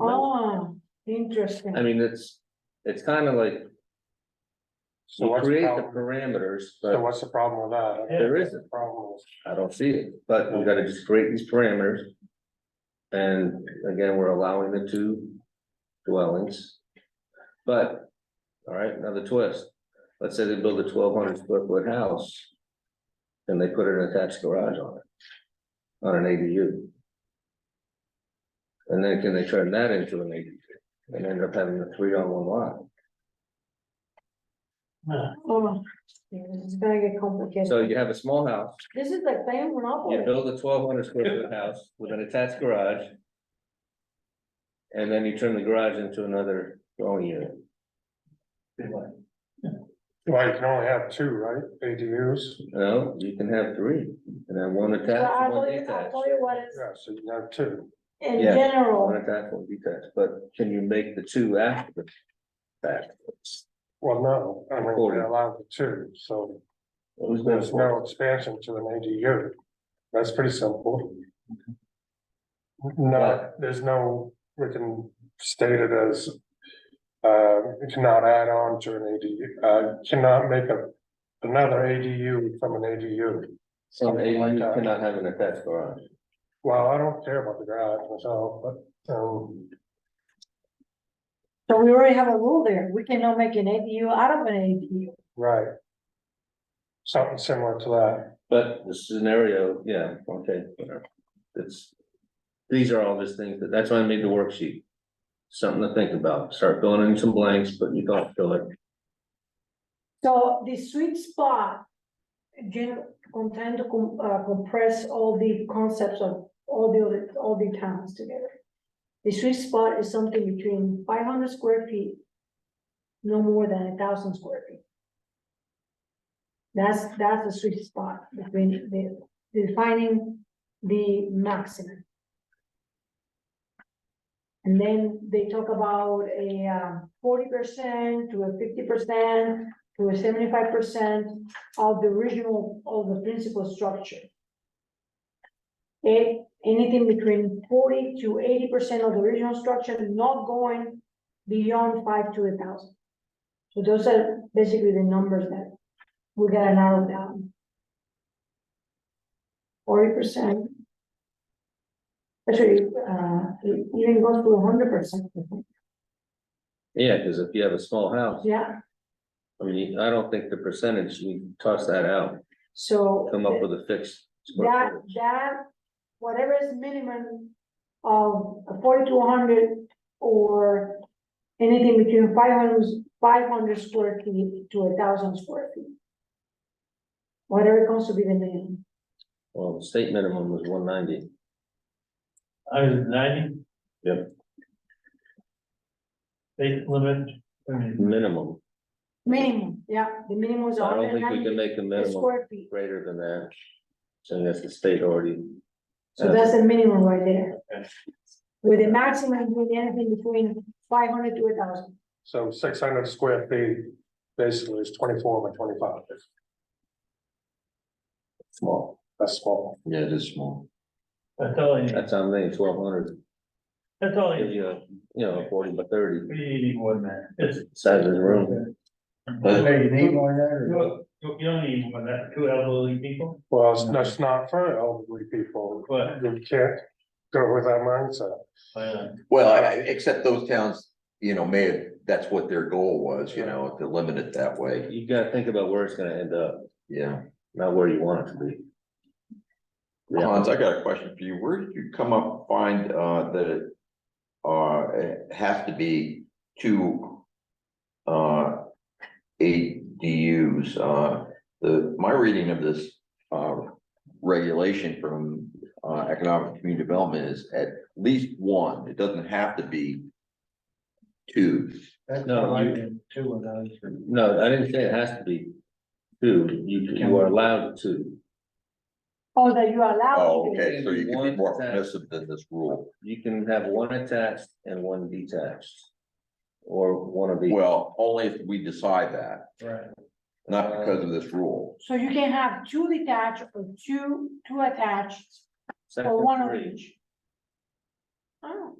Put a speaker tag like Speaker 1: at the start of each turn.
Speaker 1: Oh, Interesting.
Speaker 2: I mean, it's, it's kind of like,
Speaker 3: So
Speaker 2: we
Speaker 3: what's
Speaker 2: create
Speaker 3: the
Speaker 2: the
Speaker 3: problem,
Speaker 2: parameters,
Speaker 3: so
Speaker 2: but
Speaker 3: what's the problem with that?
Speaker 2: there isn't,
Speaker 3: Problem is,
Speaker 2: I don't see it, but we gotta just create these parameters. And again, we're allowing the two dwellings. But, all right, another twist, let's say they build a twelve hundred square foot house. And they put an attached garage on it, on an ADU. And then can they turn that into an ADU and end up having a three on one lot?
Speaker 1: Oh, yeah, This is gonna get complicated.
Speaker 2: So you have a small house,
Speaker 1: This is like playing
Speaker 2: you
Speaker 1: monopoly.
Speaker 2: build a twelve hundred square foot house with an attached garage. And then you turn the garage into another dwelling unit.
Speaker 3: well, you can only have two, right, ADUs,
Speaker 2: No, you can have three, and then one
Speaker 1: So I'll
Speaker 2: attached, one
Speaker 1: tell you, I'll
Speaker 2: detached.
Speaker 1: tell you what is,
Speaker 3: yeah, so you can have two.
Speaker 1: in
Speaker 2: Yeah. One
Speaker 1: general,
Speaker 2: attached, one detached, but can you make the two after the fact?
Speaker 3: Well, no, I mean,
Speaker 2: Forty.
Speaker 3: we're allowed the two, so
Speaker 2: Who's gonna-
Speaker 3: there's no expansion to an ADU. That's pretty simple. No, there's no, we can state it as. Uh, you cannot add on to an ADU, uh, cannot make a, another ADU from an ADU.
Speaker 2: Some
Speaker 3: something like
Speaker 2: ADU
Speaker 3: that.
Speaker 2: cannot have an attached garage.
Speaker 3: Well, I don't care about the garage myself, but, um,
Speaker 1: so we already have a rule there. We cannot make an ADU out of an ADU.
Speaker 3: right. Something similar to that,
Speaker 2: But the scenario, yeah, okay, whatever. It's, these are all just things, that that's why I made the worksheet. Something to think about, start filling in some blanks, but you don't fill it.
Speaker 1: So the sweet spot, again, I'm trying to com- uh, compress all the concepts of all the, other- all the towns together. The sweet spot is something between five hundred square feet, no more than a thousand square feet. That's, that's the sweet spot between the, defining the maximum. And then they talk about a um, forty percent to a fifty percent to a seventy-five percent of the original, of the principal structure. A- anything between forty to eighty percent of the original structure, not going beyond five to a thousand. So those are basically the numbers that we gotta narrow down. Forty percent. Actually, uh, it even goes to hundred percent,
Speaker 2: Yeah, because if you have a small house,
Speaker 1: yeah,
Speaker 2: I mean, I don't think the percentage, you toss that out,
Speaker 1: so.
Speaker 2: come up with a fixed. square
Speaker 1: That,
Speaker 2: footage.
Speaker 1: that, whatever is minimum of forty to hundred or anything between 500 500 square feet to a thousand square feet. Whatever comes to be the minimum.
Speaker 2: Well, the state minimum was one ninety.
Speaker 4: I was ninety?
Speaker 2: Yep.
Speaker 4: State limit, I mean,
Speaker 2: Minimum,
Speaker 1: Minimum, yeah, the minimum is
Speaker 2: I don't
Speaker 1: hundred
Speaker 2: think we can
Speaker 1: and
Speaker 2: make a
Speaker 1: ninety
Speaker 2: minimum
Speaker 1: square feet.
Speaker 2: greater than that. So that's the state already.
Speaker 1: So that's the minimum right there.
Speaker 4: Okay.
Speaker 1: With the maximum, with anything between five hundred to a thousand.
Speaker 3: so six hundred square feet, basically is twenty-four by twenty-five. Small, that's small.
Speaker 2: Yeah, it is small.
Speaker 4: that's all you,
Speaker 2: That's how many, twelve hundred,
Speaker 4: that's all you,
Speaker 2: you know, forty by thirty,
Speaker 4: we need more than that, it's.
Speaker 2: size of the room.
Speaker 4: You need more You, you don't need more than that, two elderly people,
Speaker 3: Well, it's- that's not for elderly people,
Speaker 4: but,
Speaker 3: you can't go with that mindset.
Speaker 4: uh,
Speaker 5: Well, I- I- except those towns, you know, may have, that's what their goal was, you know, to limit it that way,
Speaker 2: You gotta think about where it's gonna end up,
Speaker 5: yeah.
Speaker 2: not where you want it to be. Yeah.
Speaker 5: Hans, I got a question for you. Where did you come up, find, uh, that it, uh, it has to be two, uh, ADUs, uh, the, my reading of this, uh, regulation from, uh, Economic Community Development is at least one. It doesn't have to be two.
Speaker 6: That's
Speaker 2: No,
Speaker 6: not like
Speaker 2: you-
Speaker 6: in two of those.
Speaker 2: No, I didn't say it has to be two, you, you are allowed to,
Speaker 1: Oh, that you allow.
Speaker 5: Oh,
Speaker 1: to do.
Speaker 5: okay, so you can
Speaker 2: One
Speaker 5: be more
Speaker 2: tax.
Speaker 5: permissive than this rule.
Speaker 2: you can have one attached and one detached. Or one of the,
Speaker 5: Well, only if we decide that,
Speaker 4: right,
Speaker 5: not because of this rule.
Speaker 1: So you can have two detached or two, two attached,
Speaker 2: section
Speaker 1: or one of
Speaker 2: three,
Speaker 1: each. Oh,